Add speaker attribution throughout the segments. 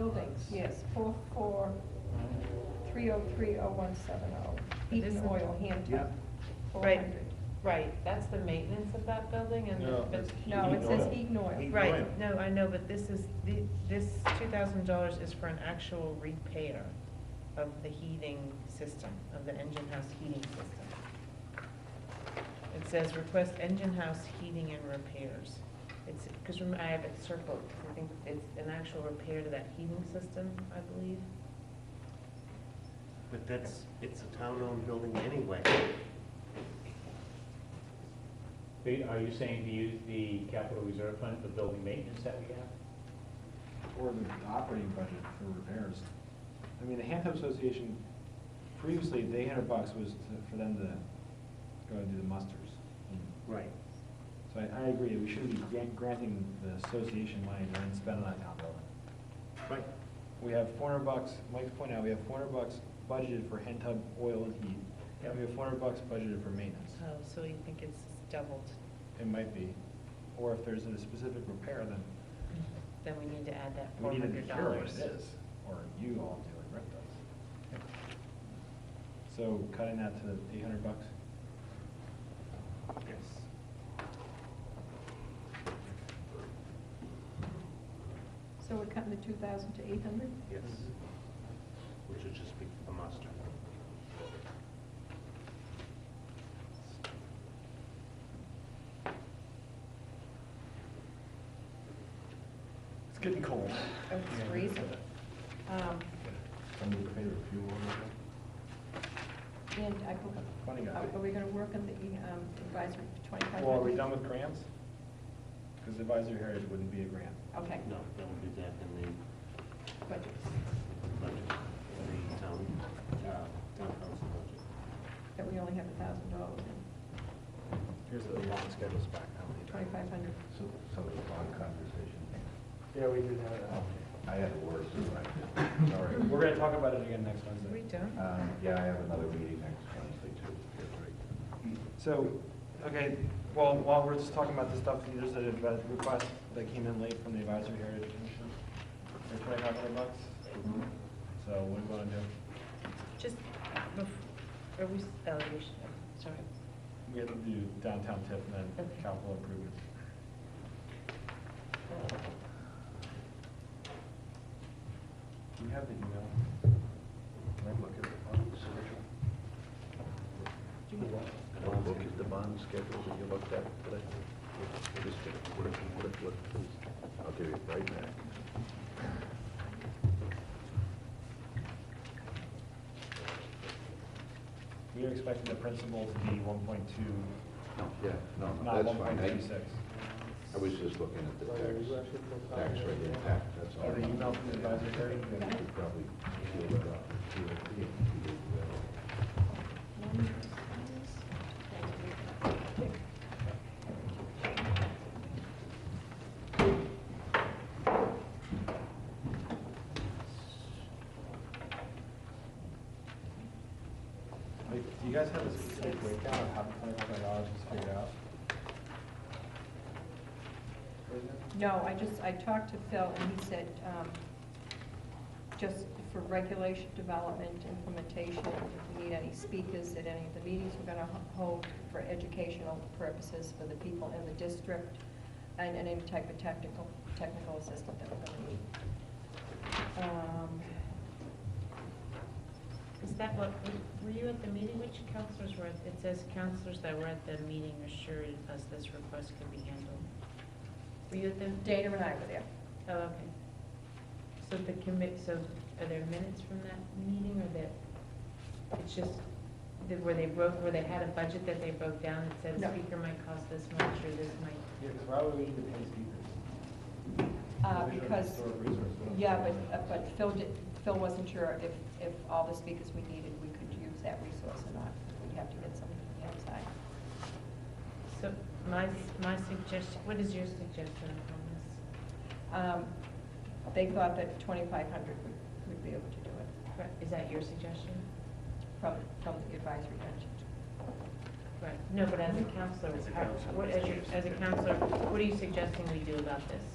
Speaker 1: buildings, yes, four, four, three oh three oh one seven oh, Eaton Oil, Hampton,
Speaker 2: Yep.
Speaker 1: four
Speaker 3: Right.
Speaker 1: hundred.
Speaker 3: Right, that's the maintenance of that building and,
Speaker 4: No,
Speaker 3: the- but,
Speaker 4: it's-
Speaker 1: No, it
Speaker 4: Eaton
Speaker 1: says
Speaker 4: Oil.
Speaker 1: Eaton Oil,
Speaker 2: Eaton.
Speaker 3: right, no, I know, but this is, the- this two thousand dollars is for an actual repair of the heating system, of the engine house heating system. It says request engine house heating and repairs. It's, because I have it circled, 'cause I think it's an actual repair to that heating system, I believe.
Speaker 5: But that's, it's a town-owned building anyway.
Speaker 6: Wait, Are you saying to use the capital reserve fund for building maintenance that we have?
Speaker 2: Or the operating budget for repairs. I mean, the Hampton Association, previously, the eight hundred bucks was to- for them to go and do the musters.
Speaker 5: Right.
Speaker 2: So I, I agree, we shouldn't be gran- granting the association money to then spend it on town building.
Speaker 5: Right.
Speaker 2: We have four hundred bucks, Mike's point out, we have four hundred bucks budgeted for hen tub oil and heat. And we have four hundred bucks budgeted for maintenance.
Speaker 3: Oh, so you think it's doubled?
Speaker 2: It might be. Or if there's a specific repair, then
Speaker 3: Then we need to add that four
Speaker 2: we need
Speaker 3: hundred
Speaker 2: to hear what
Speaker 3: dollars.
Speaker 2: it is, or you all do and Rick does. So cutting that to eight hundred bucks?
Speaker 5: Yes.
Speaker 1: so we're cutting the two thousand to eight hundred?
Speaker 5: Yes. Which would just be a muster.
Speaker 2: It's getting cold.
Speaker 3: Oh, It's freezing. Um,
Speaker 2: Somebody pay the fuel or
Speaker 1: And I, go-
Speaker 2: Funny guy.
Speaker 1: are we gonna work on the um, advisory twenty-five?
Speaker 2: Well, are we done with grants? Because advisory heritage wouldn't be a grant.
Speaker 1: Okay,
Speaker 5: No, that would be that in the
Speaker 1: budgets,
Speaker 5: budget, in the town, uh, town council budget.
Speaker 1: that we only have a thousand dollars in,
Speaker 2: Here's the long schedules back now.
Speaker 1: twenty-five hundred.
Speaker 7: So, so the bond conversation,
Speaker 2: Yeah, we do that.
Speaker 7: I had it worse than I did. All right.
Speaker 2: We're gonna talk about it again next
Speaker 3: we
Speaker 2: Wednesday.
Speaker 3: don't.
Speaker 7: Um, yeah, I have another meeting next Wednesday too.
Speaker 2: So, okay, well, while we're just talking about this stuff, there's a advi- request that came in late from the advisory heritage commission for twenty-five hundred bucks. Mm-hmm. So what do you wanna do?
Speaker 3: Just, bef- are we, s- oh, you should, sorry.
Speaker 2: We have to do downtown tip and then
Speaker 3: Okay.
Speaker 2: capital improvement. Do you have the email?
Speaker 7: Don't look at the bond schedule that you looked at today. Just what it- what it- what it- I'll give you it right back.
Speaker 2: We are expecting the principal to be one point two,
Speaker 7: Yeah, no, no,
Speaker 2: not
Speaker 7: that's
Speaker 2: one
Speaker 7: fine.
Speaker 2: point two
Speaker 7: I-
Speaker 2: six.
Speaker 7: I was just looking at the tax, tax rate impact, that's all.
Speaker 2: Or the email from the advisory heritage.
Speaker 7: We
Speaker 2: commission.
Speaker 7: could probably peel that off. Peel it, peel it, peel it.
Speaker 2: Like, do you guys have a specific breakdown of how the twenty-five hundred dollars is figured out?
Speaker 1: No, I just, I talked to Phil, and he said, um, just for regulation, development, implementation, if we need any speakers at any of the meetings we're gonna h- hold for educational purposes for the people in the district, and and any type of technical, technical assistance that we're gonna need. Um,
Speaker 3: Is that what, were you at the meeting, which counselors were, at- it says counselors that were at the meeting assured us this request could be handled. Were you at the,
Speaker 1: Dana and I were there.
Speaker 3: oh, okay. So the commit, so are there minutes from that meeting or that, it's just, that where they broke, where they had a budget that they broke down that said
Speaker 1: No.
Speaker 3: speaker might cost this much or this might,
Speaker 2: Yeah, because why would we need to pay speakers?
Speaker 1: Uh,
Speaker 2: These are
Speaker 1: Because,
Speaker 2: historic resources, we don't-
Speaker 1: yeah, but, uh, but Phil did, Phil wasn't sure if, if all the speakers we needed, we could use that resource or not. We'd have to get somebody from the outside.
Speaker 3: so my, my suggestion, what is your suggestion on this?
Speaker 1: Um, They thought that twenty-five hundred would, would be able to do it
Speaker 3: Right, Is that your suggestion?
Speaker 1: from, from the advisory bench.
Speaker 3: Right, no, but as a counselor,
Speaker 5: As a
Speaker 3: how-
Speaker 5: counselor,
Speaker 3: what, as your, as a counselor, what are you suggesting we do about this?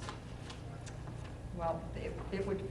Speaker 1: Well, it, it would